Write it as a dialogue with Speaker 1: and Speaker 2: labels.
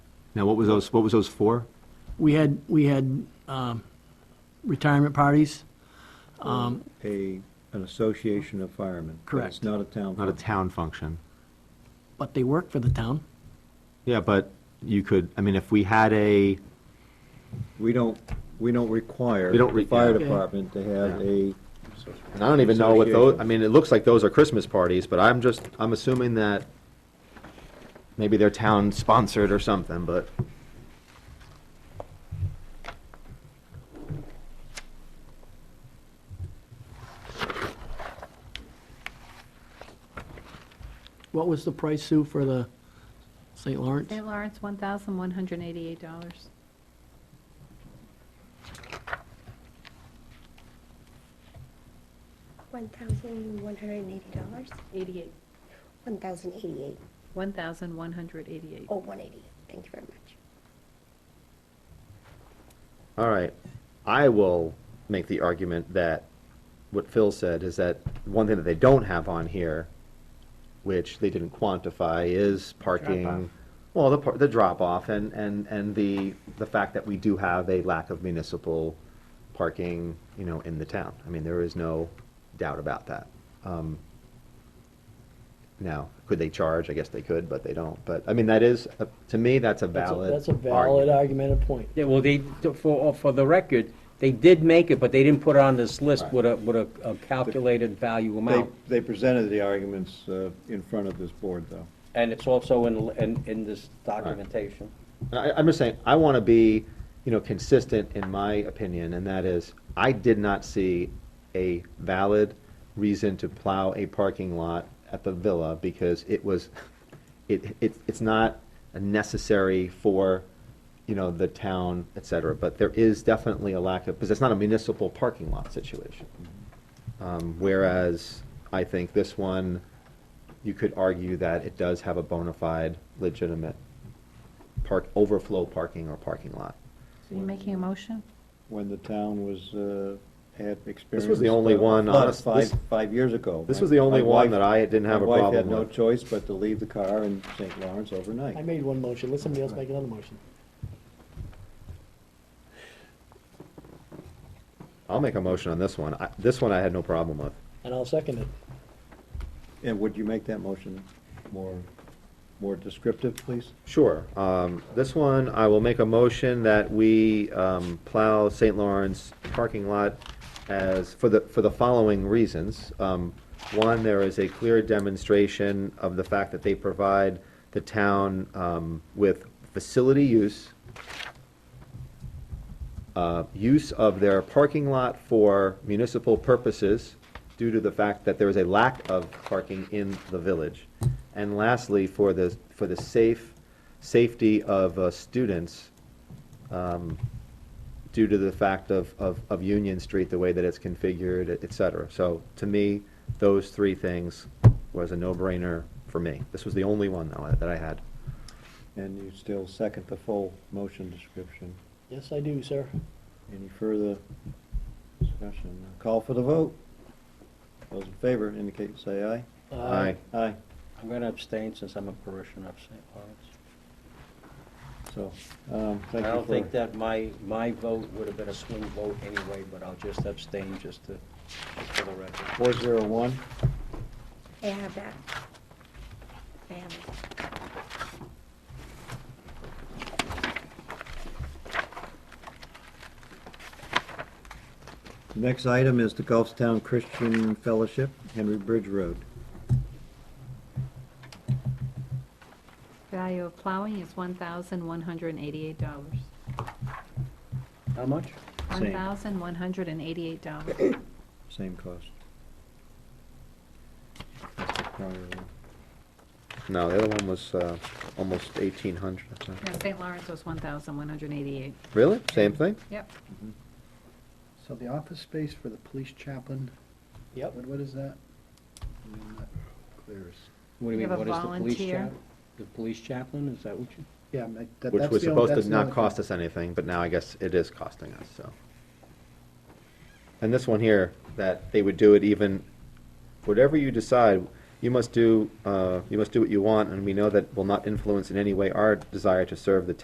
Speaker 1: Now, what was those, what was those for?
Speaker 2: We had, we had um, retirement parties. Um,
Speaker 3: a, an association of firemen. but
Speaker 2: Correct.
Speaker 3: It's not a town.
Speaker 1: Not a
Speaker 3: function.
Speaker 1: town function.
Speaker 2: but they work for the town.
Speaker 1: Yeah, but you could, I mean, if we had a,
Speaker 3: We don't, we don't require
Speaker 1: We don't
Speaker 3: the
Speaker 1: re-
Speaker 3: fire
Speaker 2: Okay.
Speaker 3: department to have a,
Speaker 1: and I don't even know what those, I
Speaker 3: Association.
Speaker 1: mean, it looks like those are Christmas parties, but I'm just, I'm assuming that maybe they're town sponsored or something, but.
Speaker 2: What was the price, Sue, for the St. Lawrence?
Speaker 4: St. Lawrence, $1,188.
Speaker 5: One thousand one hundred and eighty dollars,
Speaker 4: 88.
Speaker 5: one thousand eighty-eight,
Speaker 4: $1,188.
Speaker 5: oh, one eighty, thank you very much.
Speaker 1: All right, I will make the argument that what Phil said is that one thing that they don't have on here, which they didn't quantify, is parking. Well, the, par- the drop-off and, and, and the, the fact that we do have a lack of municipal parking, you know, in the town. I mean, there is no doubt about that. Um, Now, could they charge? I guess they could, but they don't. But, I mean, that is, a- to me, that's a valid.
Speaker 2: That's a valid
Speaker 1: argument.
Speaker 2: argumented point.
Speaker 6: Yeah, well, they, for, oh, for the record, they did make it, but they didn't put it on this list
Speaker 3: Right.
Speaker 6: with a, with a a calculated value
Speaker 3: they,
Speaker 6: amount.
Speaker 3: they presented the arguments uh, in front of this board, though.
Speaker 6: And it's also in, in, in this documentation.
Speaker 1: And I, I'm just saying, I want to be, you know, consistent in my opinion, and that is, I did not see a valid reason to plow a parking lot at the villa because it was, it, it, it's not necessary for, you know, the town, et cetera. But there is definitely a lack of, because it's not a municipal parking lot situation. Um, Whereas, I think this one, you could argue that it does have a bona fide legitimate park, overflow parking or parking lot.
Speaker 4: So you're making a motion?
Speaker 3: When the town was, uh, had experienced.
Speaker 1: the only
Speaker 3: a
Speaker 1: one,
Speaker 3: flood
Speaker 1: honest- this-
Speaker 3: Five, five years ago.
Speaker 1: this
Speaker 3: My-
Speaker 1: was the only
Speaker 3: my
Speaker 1: one
Speaker 3: wife-
Speaker 1: that I didn't have a
Speaker 3: My wife had
Speaker 1: problem
Speaker 3: no
Speaker 1: with.
Speaker 3: choice but to leave the car in St. Lawrence
Speaker 2: I
Speaker 3: overnight.
Speaker 2: made one motion, let somebody else make another motion.
Speaker 1: I'll make a motion on this one. I, this one I had no problem with.
Speaker 2: And I'll second it.
Speaker 3: And would you make that motion more, more descriptive, please?
Speaker 1: Sure. Um, this one, I will make a motion that we, um, plow St. Lawrence parking lot as, for the, for the following reasons. Um, one, there is a clear demonstration of the fact that they provide the town, um, with facility use, uh, use of their parking lot for municipal purposes due to the fact that there is a lack of parking in the village. And lastly, for the, for the safe, safety of uh, students um, due to the fact of, of, of Union Street, the way that it's configured, et- et cetera. So to me, those three things was a no-brainer for me. This was the only one though that I had.
Speaker 3: And you still second the full motion description.
Speaker 2: Yes, I do, sir.
Speaker 3: Any further discussion? Call for the vote. Those in favor indicate, say aye.
Speaker 2: Uh,
Speaker 1: Aye.
Speaker 3: Aye.
Speaker 6: I'm gonna abstain since I'm a parishioner of St. Lawrence.
Speaker 3: So, um, thank
Speaker 6: I
Speaker 3: you
Speaker 6: don't think
Speaker 3: for,
Speaker 6: that my, my vote would have been a swing vote anyway, but I'll just abstain just to, just for the record.
Speaker 3: four zero one,
Speaker 5: I have that. I have it.
Speaker 3: next item is the Gulfstown Christian Fellowship, Henry Bridge Road.
Speaker 4: Value of plowing is $1,188.
Speaker 6: How much?
Speaker 3: Same.
Speaker 4: $1,188.
Speaker 3: Same cost. That's the prior one.
Speaker 1: No, the other one was uh, almost eighteen hundred, I think.
Speaker 4: No, St. Lawrence was $1,188.
Speaker 1: Really? Same thing?
Speaker 4: Yep.
Speaker 7: So the office space for the police chaplain,
Speaker 2: Yep.
Speaker 7: what, what is that? I mean, that clears.
Speaker 4: You
Speaker 6: What do you mean,
Speaker 4: have a
Speaker 6: what is the police
Speaker 4: volunteer.
Speaker 6: chap? The police chaplain, is that what you?
Speaker 7: Yeah, I mean, that, that's the.
Speaker 1: Which was supposed to not cost
Speaker 7: us.
Speaker 1: us anything, but now I guess it is costing us, so. And this one here, that they would do it even, whatever you decide, you must do, uh, you must do what you want, and we know that will not influence in any way our desire to serve the